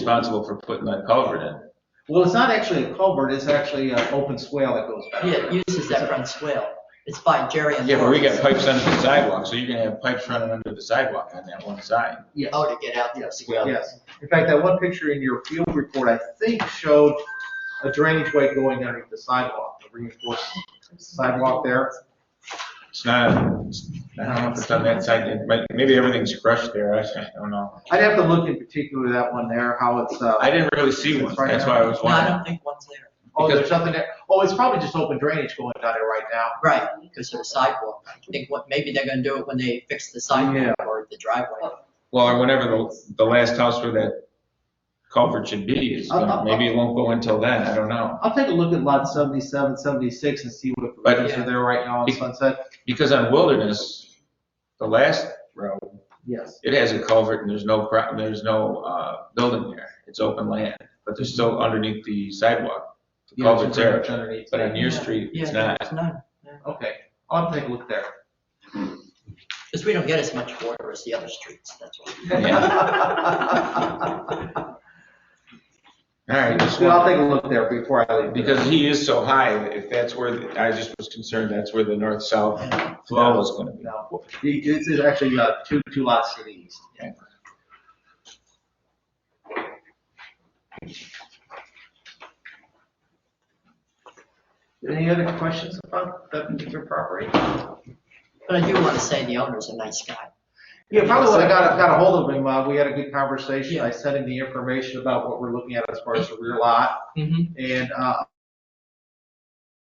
responsible for putting that culvert in. Well, it's not actually a culvert, it's actually an open swale that goes back. Yeah, it uses that front swale. It's by Jerry and. Yeah, but we Laura's. got pipes under the sidewalk, so you're gonna have pipes running under the sidewalk on that one side. Yes, Oh, to get out there. yes, yes. In fact, that one picture in your field report, I think, showed a drainage way going underneath the sidewalk, a reinforced sidewalk there. It's not, I don't know if it's on that side, but maybe everything's crushed there, I don't know. I'd have to look in particular to that one there, how it's, uh, I didn't really see one, that's why I was No, I wondering. don't think one's there. oh, there's something there. Oh, it's probably just open drainage going down there right now. Right, because of the sidewalk. I think what, maybe they're gonna do it when they fix the sidewalk or the driveway. Well, or whenever the, the last house where that culvert should be is, gonna- maybe it won't go until then, I don't know. I'll take a look at lot 77, 76 and see what But- provisions are there right now on Be- Sunset. Because on Wilderness, the last row, Yes. it has a culvert and there's no, pro- there's no, uh, building there. It's open land, but there's still underneath the sidewalk, the Yeah, it's culvert's there. pretty much underneath. But on your street, it's Yeah, not. there's none. Okay, I'll have to take a look there. Because we don't get as much water as the other streets, that's why. Yeah, All right, just I'll one- take a look there before I leave. because he is so high, if that's where, the- I just was concerned, that's where the north-south flow is gonna be. No, he- This is actually uh, two, two lots to the east. Any other questions about that particular property? But I do want to say the owner's a nice guy. Yeah, probably when I got, got ahold of him, uh, we had a good conversation. I sent him the information about what we're looking at as far as the rear lot. And, uh,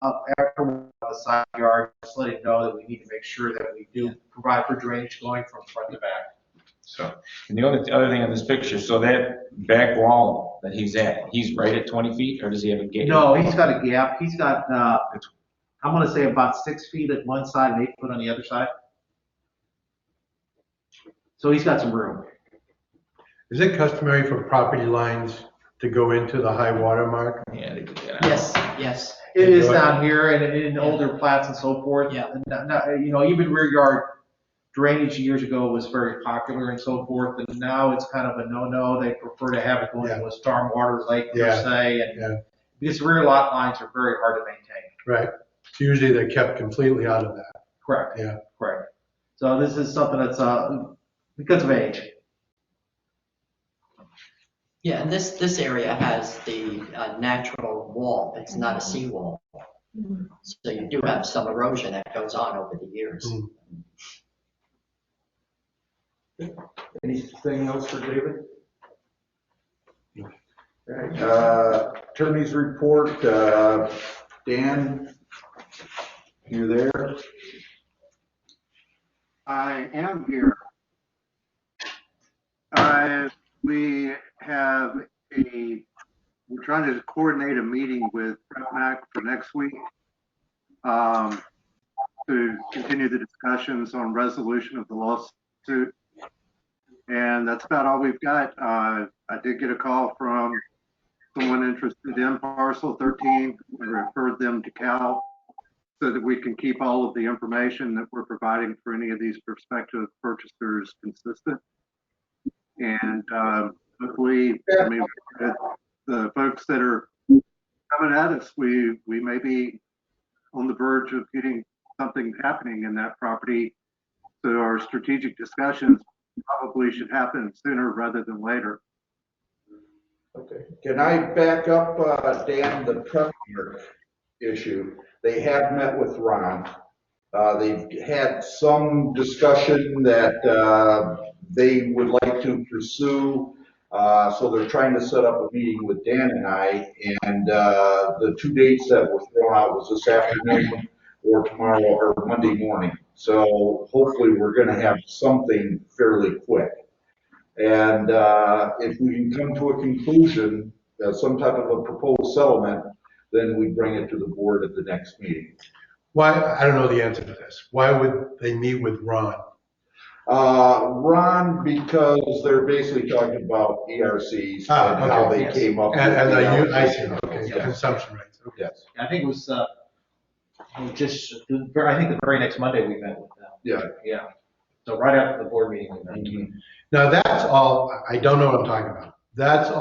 up after we got the side yard, just let him know that we need to make sure that we do provide for drainage going from front to back. So, and the only, the other thing on this picture, so that back wall that he's at, he's right at 20 feet, or does he have a gate? No, he's got a gap. He's got, uh, I'm gonna say about six feet at one side and eight foot on the other side. So he's got some room. Is it customary for property lines to go into the high water mark? Yeah, they could get out. Yes, yes. It is down here and in older plats and so forth. Yeah. And not- not- you know, even rear yard drainage years ago was very popular and so forth, and now it's kind of a no-no. They prefer to have it going to a stormwater lake per Yeah. se, Yeah. and because rear lot lines are very hard to maintain. Right, So usually they're kept completely out of that. Correct. Yeah. Correct. So this is something that's, uh, because of age. Yeah, and this, this area has the uh, natural wall. It's not a seawall. So you do have some erosion that goes on over the years. Mm. Anything else for David? Okay, uh, Attorney's report, uh, Dan, you there? I am here. I, we have a, we're trying to coordinate a meeting with Brett Mack for next week. um, To continue the discussions on resolution of the lawsuit. And that's about all we've got. Uh, I did get a call from someone interested in parcel thirteen. I referred them to Cal so that we can keep all of the information that we're providing for any of these prospective purchasers consistent. And um, hopefully, I mean, with the folks that are coming at us, we, we may be on the verge of getting something happening in that property. So our strategic discussions probably should happen sooner rather than later. Okay. Can I back up, uh, Dan, the prep work issue? They have met with Ron. Uh, They've had some discussion that uh, they would like to pursue. Uh, So they're trying to set up a meeting with Dan and I. And uh, the two dates that were thrown out was this afternoon or tomorrow or Monday morning. So hopefully, we're going to have something fairly quick. And uh, if we can come to a conclusion, uh, some type of a proposed settlement, then we bring it to the board at the next meeting. Why, I don't know the answer to this. Why would they meet with Ron? Uh, Ron, because they're basically talking about ERCs and Ah, how okay, they yes. came up. And, and I, with u- the I see, allocation. okay, Yes, consumption rights, okay. Yes, I think it was, uh, it was just, I think the very next Monday we met with them. yeah. Yeah. So right after the board meeting we met. Now, that's all, I don't know what I'm talking about. That's all